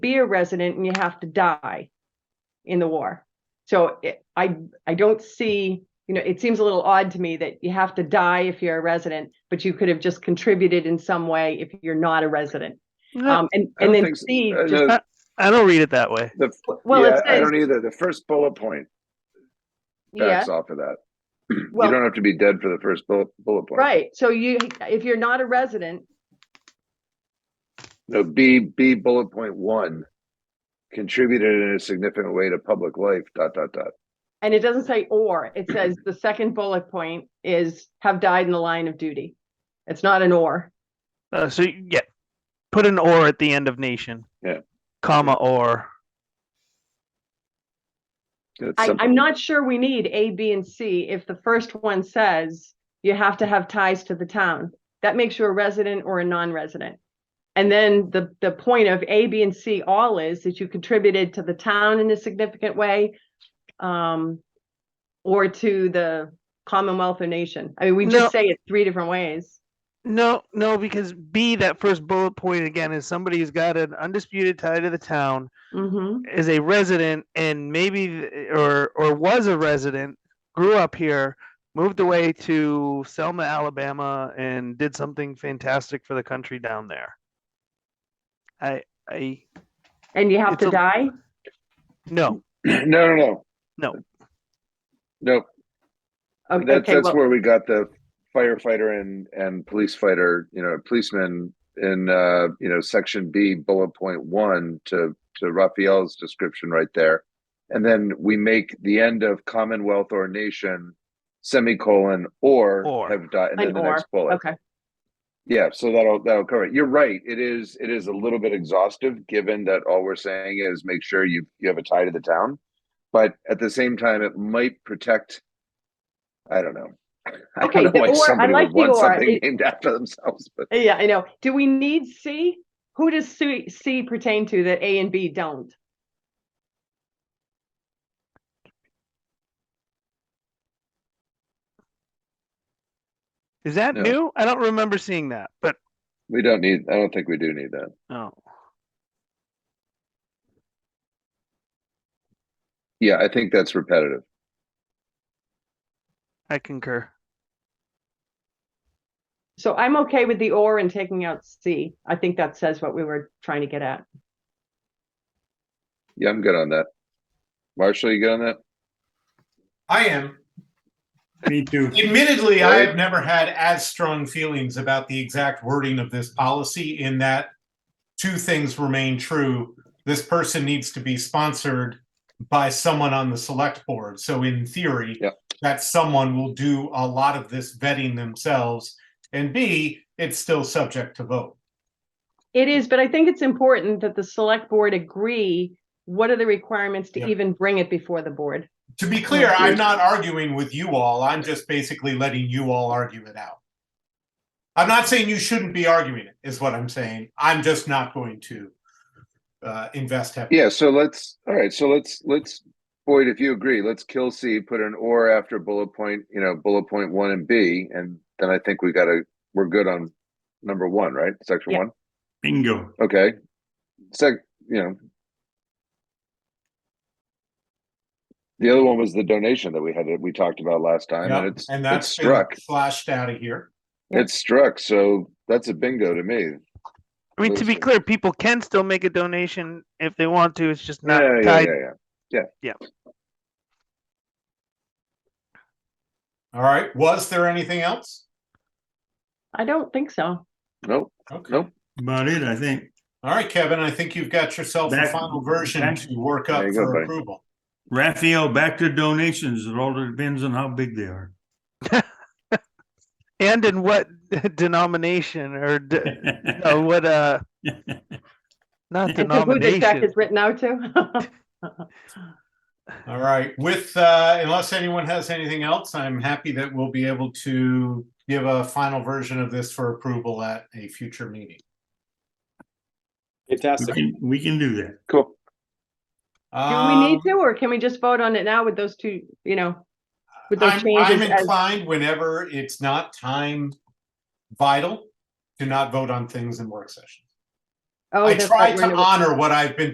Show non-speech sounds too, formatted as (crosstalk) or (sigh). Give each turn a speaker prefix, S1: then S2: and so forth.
S1: be a resident and you have to die in the war. So it, I I don't see, you know, it seems a little odd to me that you have to die if you're a resident, but you could have just contributed in some way if you're not a resident.
S2: No,
S1: Um, and
S3: I
S1: and
S3: don't
S1: then
S3: think so.
S1: C,
S3: Uh,
S1: just-
S3: no,
S2: I don't read it that way.
S3: the-
S1: well,
S3: yeah,
S1: it
S3: I
S1: says,
S3: don't either. The first bullet point
S1: yeah,
S3: backs off of that. (clears throat)
S1: Well-
S3: you don't have to be dead for the first bullet, bullet point.
S1: right. So you, if you're not a resident,
S3: No, B B bullet point one contributed in a significant way to public life. Dot dot dot.
S1: and it doesn't say or, it says the second bullet point is have died in the line of duty. It's not an or.
S2: Uh, so yeah, put an or at the end of nation.
S3: Yeah.
S2: Comma or.
S3: That's
S1: I,
S3: simple.
S1: I'm not sure we need A, B, and C if the first one says you have to have ties to the town. That makes you a resident or a non-resident. And then the, the point of A, B, and C all is that you contributed to the town in a significant way. Um, or to the Commonwealth or nation. I mean, we
S2: No.
S1: just say it three different ways.
S2: No, no, because B, that first bullet point again is somebody who's got an undisputed tie to the town,
S1: hmm
S2: is a resident, and maybe th- or or was a resident, grew up here, moved away to Selma, Alabama, and did something fantastic for the country down there. I I
S1: And you have
S2: It's
S1: to
S2: a-
S1: die?
S2: no
S3: (clears throat) no, no, no,
S2: No.
S3: no.
S1: Okay,
S3: That's
S1: okay,
S3: that's
S1: well,
S3: where we got the firefighter and and police fighter. You know, policeman in uh, you know section B bullet point one to to Raphael's description right there, and then we make the end of Commonwealth or nation semicolon or,
S2: Or.
S3: have died and then
S1: An
S3: the
S1: or,
S3: next bullet.
S1: okay.
S3: Yeah, so that'll that'll cover it. You're right. It is it is a little bit exhaustive, given that all we're saying is make sure you you have a tie to the town, but at the same time, it might protect. I don't know. (laughs) I
S1: Okay,
S3: don't
S1: the
S3: know why
S1: or- I
S3: somebody
S1: like
S3: would
S1: the
S3: want
S1: or.
S3: something
S1: It-
S3: named (laughs) after themselves, but
S1: Yeah, I know. Do we need C? Who does C, C pertain to that A and B don't?
S2: is that
S3: No.
S2: new? I don't remember seeing that, but
S3: we don't need. I don't think we do need that.
S2: oh
S3: Yeah, I think that's repetitive.
S2: I concur.
S1: So I'm okay with the or and taking out C. I think that says what we were trying to get at.
S3: Yeah, I'm good on that. Marshall, you good on that?
S4: I am.
S5: Me too.
S4: Admittedly, I
S3: Right.
S4: have never had as strong feelings about the exact wording of this policy in that two things remain true. This person needs to be sponsored by someone on the select board. So in theory,
S3: Yep.
S4: that someone will do a lot of this vetting themselves. And B, it's still subject to vote.
S1: It is, but I think it's important that the select board agree what are the requirements to
S4: Yeah.
S1: even bring it before the board.
S4: To be clear, I'm not arguing with you all. I'm just basically letting you all argue it out. I'm not saying you shouldn't be arguing it, is what I'm saying. I'm just not going to uh, invest heavily.
S3: Yeah, so let's, all right, so let's, let's, Boyd, if you agree, let's kill C, put an or after bullet point, you know, bullet point one and B, and then I think we gotta, we're good on number one, right? Section
S1: Yeah.
S3: one,
S5: Bingo.
S3: okay? Sec, you know. The other one was the donation that we had, that we talked about last time,
S4: Yep,
S3: and it's,
S4: And
S3: it's
S4: that's been
S3: struck,
S4: flashed out of here.
S3: it's struck, so that's a bingo to me.
S2: I mean, to be
S3: Listen.
S2: clear, people can still make a donation if they want to. It's just not
S3: Yeah, yeah,
S2: tied.
S3: yeah, yeah.
S4: All right. Was there anything else?
S1: I don't think so.
S3: Nope,
S4: Okay.
S3: Nope.
S5: About it, I think.
S4: All right, Kevin, I think you've got yourself a
S5: Back-
S4: final version
S5: back-
S4: to work up
S3: There you go,
S4: for
S3: buddy.
S4: approval.
S5: Raphael, back to donations. It all depends on how big they are.
S2: And in what (laughs) denomination or
S5: (laughs)
S2: d- no, what? Uh, not
S1: And to who this check
S2: denomination.
S1: is written out to? (laughs)
S4: All right. With, uh, unless anyone has anything else, I'm happy that we'll be able to give a final version of this for approval at a future meeting.
S5: We
S6: Fantastic.
S5: can- We can do that.
S3: cool.
S1: Do we
S4: Um,
S1: need to, or can we just vote on it now with those two, you know? with those
S4: I'm, I'm
S1: changes as-
S4: inclined whenever it's not time vital to not vote on things in work sessions.
S1: Oh,
S4: I
S1: that's right,
S4: try
S1: we're in
S4: to
S1: a-
S4: honor what I've been